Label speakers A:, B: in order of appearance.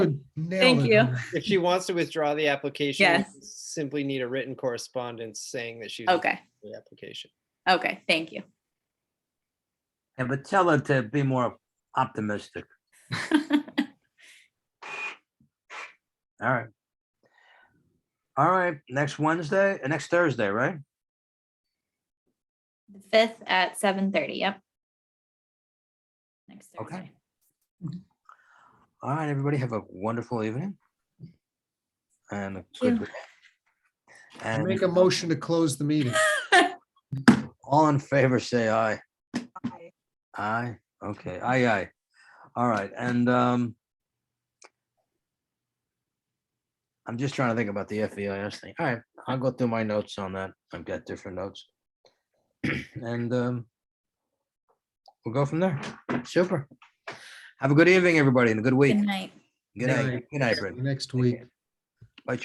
A: nailed
B: Thank
A: it.
B: you.
C: If she wants to withdraw the application, we
B: Yes.
C: simply need a written correspondence saying that she's
B: Okay,
C: withdrawing the application.
B: okay, thank you.
D: And but tell her to be more optimistic. All right. All right, next Wednesday, uh, next Thursday, right?
B: The Fifth at seven thirty, yep. Next
D: Okay.
B: Thursday.
D: All right, everybody have a wonderful evening. And a
B: you.
D: good week. And
A: Make a motion to close the meeting.
D: all in favor, say aye. Aye, okay, aye, aye. All right, and um I'm just trying to think about the FEIS thing. All right, I'll go through my notes on that. I've got different notes. And um we'll go from there. Super. Have a good evening, everybody, and a good week.
B: Good night.
D: Good night. Good night, Brett.
A: Next week.